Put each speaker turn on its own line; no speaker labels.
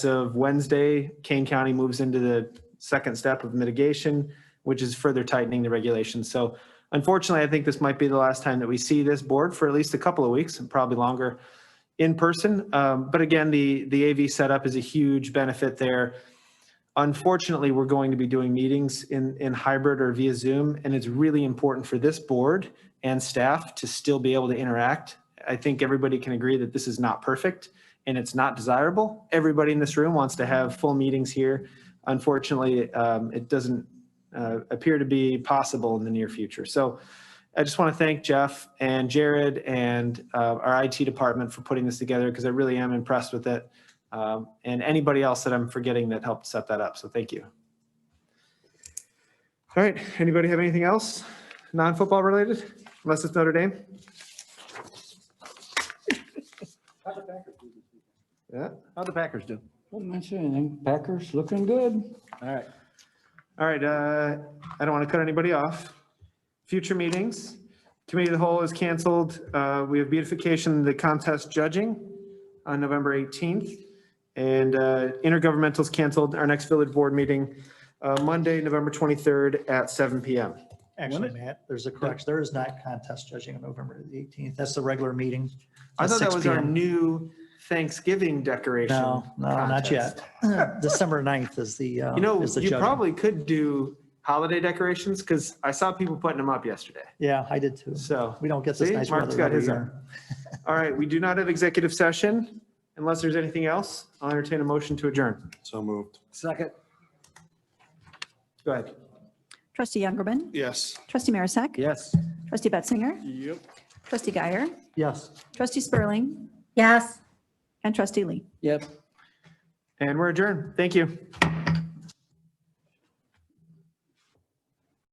of Wednesday, Kane County moves into the second step of mitigation, which is further tightening the regulations. So unfortunately, I think this might be the last time that we see this board for at least a couple of weeks and probably longer in person. Um, But again, the, the AV setup is a huge benefit there. Unfortunately, we're going to be doing meetings in, in hybrid or via Zoom, and it's really important for this board and staff to still be able to interact. I think everybody can agree that this is not perfect and it's not desirable. Everybody in this room wants to have full meetings here. Unfortunately, um, it doesn't uh, appear to be possible in the near future. So I just want to thank Jeff and Jared and uh, our IT department for putting this together because I really am impressed with it. Um, and anybody else that I'm forgetting that helped set that up. So thank you. All right. Anybody have anything else non-football related? Unless it's Notre Dame? Yeah. How'd the Packers do?
Don't mention anything. Packers looking good.
All right. All right, uh, I don't want to cut anybody off. Future meetings, committee of the whole is canceled. Uh, We have beautification, the contest judging on November 18th. And uh, intergovernmental's canceled. Our next village board meeting, uh, Monday, November 23rd at 7 PM.
Actually, Matt, there's a correction. There is not contest judging on November the 18th. That's the regular meeting.
I
at
thought that
6
was our
p.m.
new Thanksgiving decoration.
No, no, not
contest.
yet. December 9th is the, uh,
You know,
is the
you
judging.
probably could do holiday decorations because I saw people putting them up yesterday.
Yeah, I did too.
So.
We don't get this
See,
nice
Mark's
weather
got
every
his
year.
All right, we do not have executive session. Unless there's anything else, I'll entertain a motion to adjourn.
So moved.
Go ahead.
Trustee Youngerman.
Yes.
Trustee Marisak.
Yes.
Trustee Betzinger.
Yep.
Trustee Guyer.
Yes.
Trustee Spurling.
Yes.
And Trustee Lee.
Yep.
And we're adjourned. Thank you.